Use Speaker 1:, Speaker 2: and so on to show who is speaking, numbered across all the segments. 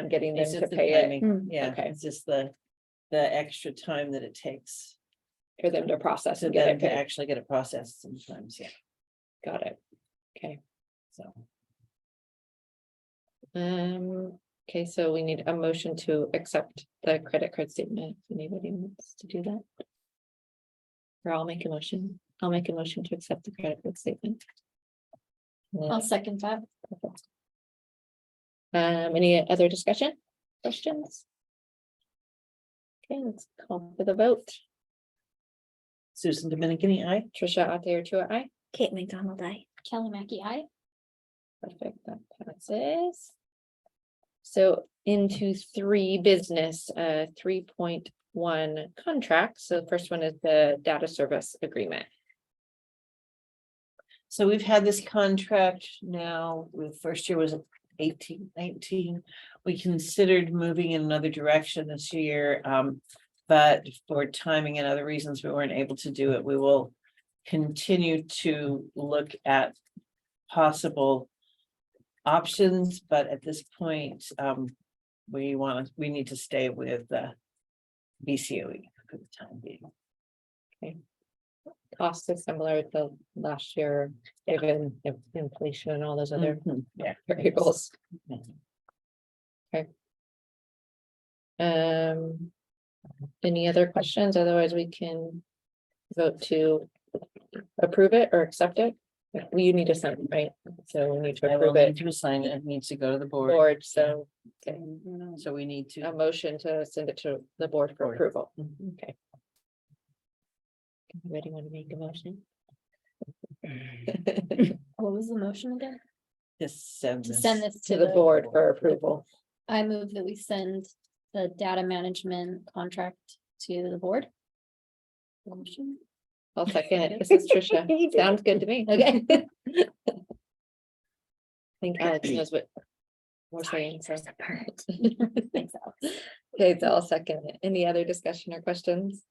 Speaker 1: I'm getting them
Speaker 2: It's
Speaker 1: to
Speaker 2: just the
Speaker 1: pay it,
Speaker 2: timing.
Speaker 3: Hmm,
Speaker 2: Yeah,
Speaker 1: okay.
Speaker 2: it's just the, the extra time that it takes
Speaker 1: for them to process
Speaker 2: to
Speaker 1: and get
Speaker 2: them
Speaker 1: it
Speaker 2: to
Speaker 1: paid.
Speaker 2: actually get it processed sometimes, yeah,
Speaker 1: Got it. Okay,
Speaker 2: so.
Speaker 1: um, okay, so we need a motion to accept the credit card statement. if Anybody wants to do that? Or I'll make a motion. I'll make a motion to accept the credit card statement.
Speaker 3: I'll second that.
Speaker 1: Um, any other discussion, questions? Okay, let's call for the vote.
Speaker 2: Susan Dominican, I.
Speaker 1: Trisha Ateertua, aye.
Speaker 4: Kate McDonald, I.
Speaker 3: Kelly Mackey, I.
Speaker 1: Perfect, that passes. So into three business, uh, three point one contracts. So the first one is the data service agreement.
Speaker 2: So we've had this contract now, the first year was eighteen, nineteen. We considered moving in another direction this year, um, but for timing and other reasons, we weren't able to do it. We will continue to look at possible options, but at this point, um, we want, to we need to stay with the BCOE E for the time being.
Speaker 1: Costs is similar to last year, given in- inflation and all those other
Speaker 2: Mhm, Yeah.
Speaker 1: variables.
Speaker 2: Mhm.
Speaker 1: Um, any other questions? Otherwise, we can vote to approve it or accept it. Well, You need to sign, it, right? So we need to
Speaker 2: I will
Speaker 1: approve
Speaker 2: need
Speaker 1: it.
Speaker 2: to assign it, it needs to go to the board,
Speaker 1: Board, so okay.
Speaker 3: Mm-hmm.
Speaker 2: so we need to.
Speaker 3: Oh.
Speaker 1: a motion to send it to the board for
Speaker 2: Board.
Speaker 1: approval.
Speaker 2: Mhm.
Speaker 1: Okay. Anybody want to make a motion?
Speaker 3: What was the motion again?
Speaker 2: Just send
Speaker 3: To
Speaker 2: this.
Speaker 3: send this
Speaker 1: To the board for approval.
Speaker 3: I move that we send the data management contract to the board. Motion.
Speaker 1: I'll second it. This is Tricia. Sounds good to me.
Speaker 3: Okay.
Speaker 1: I think Alex knows what. We're saying, so.
Speaker 3: Thanks, Alex.
Speaker 1: Okay, so I'll second it. Any other discussion or questions?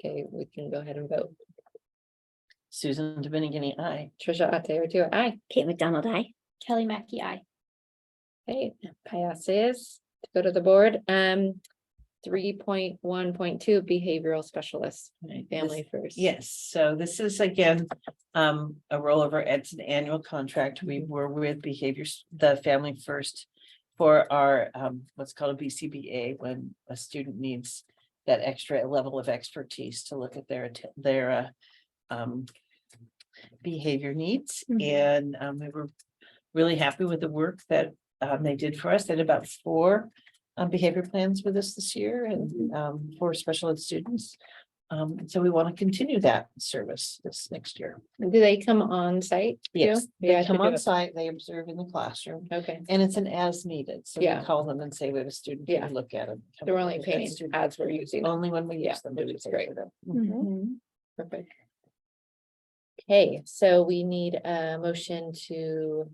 Speaker 1: Okay, we can go ahead and vote.
Speaker 2: Susan Dominican, I.
Speaker 1: Trisha Ateertua, aye.
Speaker 4: Kate McDonald, I.
Speaker 3: Kelly Mackey, I.
Speaker 1: Hey, passes to go to the board. Um, three point one point two behavioral specialists, family first.
Speaker 2: Yes, so this is again, um, a rollover, it's an annual contract, we
Speaker 3: Mm-hmm.
Speaker 2: were with behaviors, the family first. For our, um, what's called a BCBA, when a student needs that extra level of expertise to look at their, atten- their, uh. Um, behavior needs,
Speaker 1: Mm-hmm.
Speaker 4: Mhm.
Speaker 2: and, um, we were really happy with the work that, um, they did for us, they had about four. Um, behavior plans with us this year
Speaker 1: Mm-hmm.
Speaker 2: and, um, for special ed students. Um, and so we want to continue that service this next year.
Speaker 1: Do they come on site? too?
Speaker 2: Yes,
Speaker 1: Yeah. I
Speaker 2: They come
Speaker 1: think
Speaker 2: on
Speaker 1: it-
Speaker 2: site, they observe in the classroom,
Speaker 1: Okay,
Speaker 2: and it's an as needed, so we
Speaker 1: Yeah.
Speaker 2: call them and say we have a student,
Speaker 1: Yeah.
Speaker 2: can you look at them.
Speaker 1: they're only paying as we're using.
Speaker 2: Only when we
Speaker 1: Yeah,
Speaker 2: use them. do
Speaker 1: which
Speaker 2: we
Speaker 1: is
Speaker 2: pay
Speaker 1: great.
Speaker 2: for them.
Speaker 3: Mm-hmm.
Speaker 1: Mhm. Perfect. Okay, so we need a motion to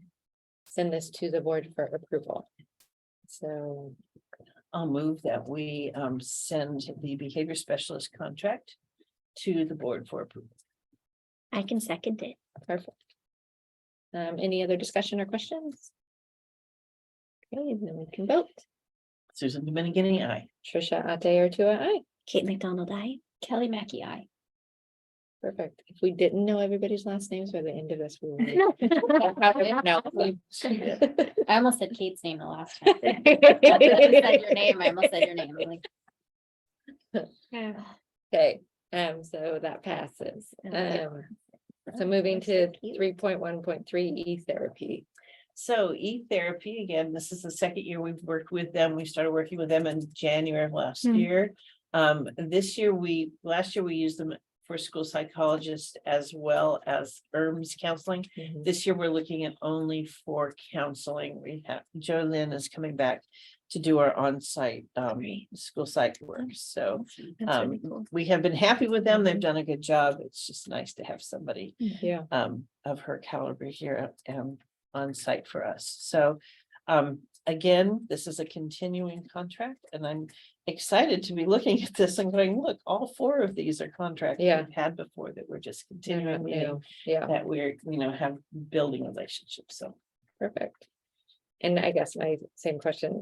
Speaker 1: send this to the board for approval. So
Speaker 2: I'll move that we um send the behavior specialist contract to the board for approval.
Speaker 4: I can second it.
Speaker 1: Perfect. Um, any other discussion or questions? Okay, then we can vote.
Speaker 2: Susan Dominican, I.
Speaker 1: Trisha Ate or Tua, aye.
Speaker 4: Kate McDonald, I.
Speaker 3: Kelly Mackey, I.
Speaker 1: Perfect. If we didn't know everybody's last names by the end of this. we would be-
Speaker 4: No.
Speaker 1: No.
Speaker 3: I almost said Kate's name the last time. That's when I said your
Speaker 1: Okay,
Speaker 3: name, I almost said your name. I'm like,
Speaker 1: um, so that passes.
Speaker 4: Okay.
Speaker 1: Um, so moving to three point one point three E therapy.
Speaker 2: So e-therapy, again, this is the second year we've worked with them. We started working with them in January of last
Speaker 4: Hmm.
Speaker 2: year. Um, this year, we, last year, we used them for school psychologists as well as E ERMs counseling.
Speaker 3: Mm-hmm.
Speaker 2: This year, we're looking at only for counseling. We have, Jo Lynn is coming back to do our on-site um, school psych work, so.
Speaker 4: That's really
Speaker 2: um,
Speaker 4: cool.
Speaker 2: We have been happy with them.
Speaker 1: Mm-hmm.
Speaker 2: They've done a good job. It's just nice to have somebody
Speaker 1: Yeah.
Speaker 2: um, of her caliber here, um, on site for us. So, um, again, this is a continuing contract and I'm excited to be looking at this and going, look, all four of these are contracts
Speaker 1: Yeah.
Speaker 2: we've had before that we're just
Speaker 1: they're not
Speaker 2: continuing, meaning
Speaker 1: new. Yeah,
Speaker 2: that we're, you know, have building relationships. So
Speaker 1: perfect. And I guess my same question,